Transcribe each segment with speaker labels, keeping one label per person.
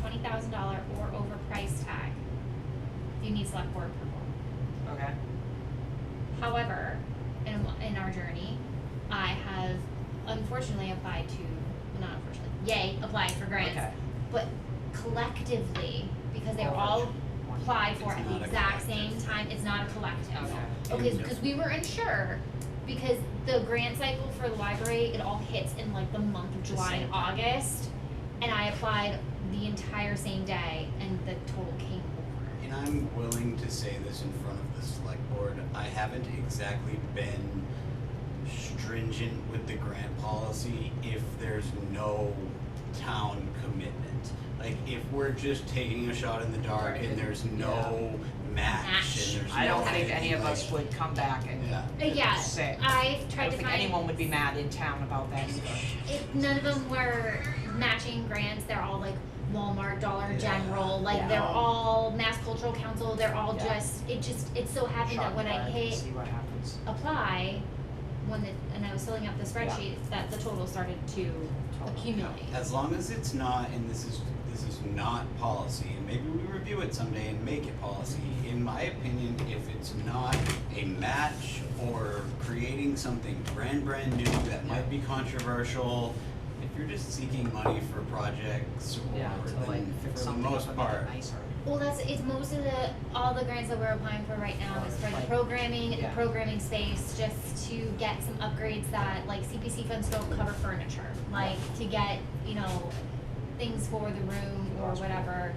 Speaker 1: twenty thousand dollar or over price tag, you need select board approval.
Speaker 2: Okay.
Speaker 1: However, in, in our journey, I have unfortunately applied to, not unfortunately, yay, applied for grants.
Speaker 2: Okay.
Speaker 1: But collectively, because they were all applied for
Speaker 3: It's
Speaker 1: at the
Speaker 3: not a
Speaker 1: exact same
Speaker 3: collective.
Speaker 1: time, it's not a collective.
Speaker 2: Okay.
Speaker 1: Okay, because we were unsure, because the grant cycle for the library, it all hits in like the month of
Speaker 2: The
Speaker 1: July
Speaker 2: same
Speaker 1: and
Speaker 2: time.
Speaker 1: August. And I applied the entire same day and the total came over.
Speaker 3: And I'm willing to say this in front of the select board, I haven't exactly been stringent with the grant policy if there's no town commitment. Like, if we're just taking a shot in the dark
Speaker 2: Right.
Speaker 3: and there's no match and there's no.
Speaker 2: I don't think
Speaker 3: anything,
Speaker 2: any of us
Speaker 3: like-
Speaker 2: would come back and
Speaker 3: Yeah.
Speaker 1: But Uh, yeah,
Speaker 2: say,
Speaker 1: I've
Speaker 2: I
Speaker 1: tried
Speaker 2: don't
Speaker 1: to
Speaker 2: think
Speaker 1: find,
Speaker 2: anyone would be mad in town about that either.
Speaker 1: it, none of them were matching grants, they're all like Walmart, Dollar
Speaker 3: Yeah.
Speaker 1: General, like
Speaker 2: Yeah.
Speaker 1: they're all Mass Cultural Council, they're all
Speaker 2: Yeah.
Speaker 1: just, it just, it so happened
Speaker 2: Shot
Speaker 1: that
Speaker 2: in
Speaker 1: when
Speaker 2: the
Speaker 1: I
Speaker 2: dark and
Speaker 1: hit
Speaker 2: See what happens.
Speaker 1: apply, when the, and I was filling out the spreadsheet, that the total started to
Speaker 2: Total.
Speaker 1: accumulate.
Speaker 3: As long as it's not, and this is, this is not policy, and maybe we review it someday and make it policy, in my opinion, if it's not a match or creating something brand, brand new that might be controversial, if you're just seeking money for projects
Speaker 2: Yeah,
Speaker 3: or
Speaker 2: to like
Speaker 3: then
Speaker 2: fix
Speaker 3: for the
Speaker 2: something up
Speaker 3: most
Speaker 2: and make it
Speaker 3: part,
Speaker 2: nicer.
Speaker 1: Well, that's, it's most of the, all the grants that we're applying for right now is for the programming, the
Speaker 2: Yeah.
Speaker 1: programming space, just to get some upgrades that, like CPC funds don't cover furniture. Like, to get, you know, things for the room or whatever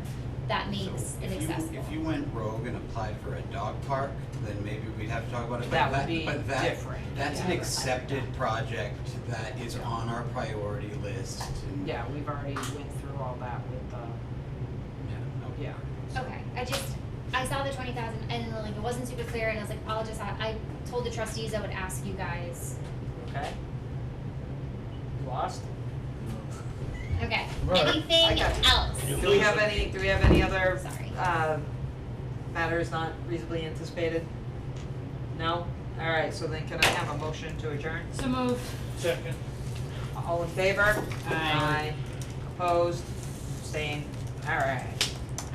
Speaker 1: that makes
Speaker 3: so
Speaker 1: it
Speaker 3: if you,
Speaker 1: accessible.
Speaker 3: if you went rogue and applied for a dog park, then maybe we'd have to talk about it, but
Speaker 2: That would
Speaker 3: that,
Speaker 2: be
Speaker 3: but that,
Speaker 2: different.
Speaker 3: that's an
Speaker 2: Yeah.
Speaker 3: accepted project that is on our priority list and
Speaker 2: Yeah, we've already went through all that with the,
Speaker 3: Yeah.
Speaker 2: yeah.
Speaker 1: Okay, I just, I saw the twenty thousand and like, it wasn't super clear and I was like, I'll just, I, I told the trustees I would ask you guys.
Speaker 2: Okay. You Lost?
Speaker 1: Okay,
Speaker 4: Right.
Speaker 2: I
Speaker 1: anything
Speaker 2: got you.
Speaker 1: else?
Speaker 2: Do we have any, do we have any other,
Speaker 1: Sorry.
Speaker 2: uh, matters not reasonably anticipated? No? Alright, so then can I have a motion to adjourn?
Speaker 5: So moved.
Speaker 4: Second.
Speaker 2: All in favor? Aye. Opposed? Abstained? Alright.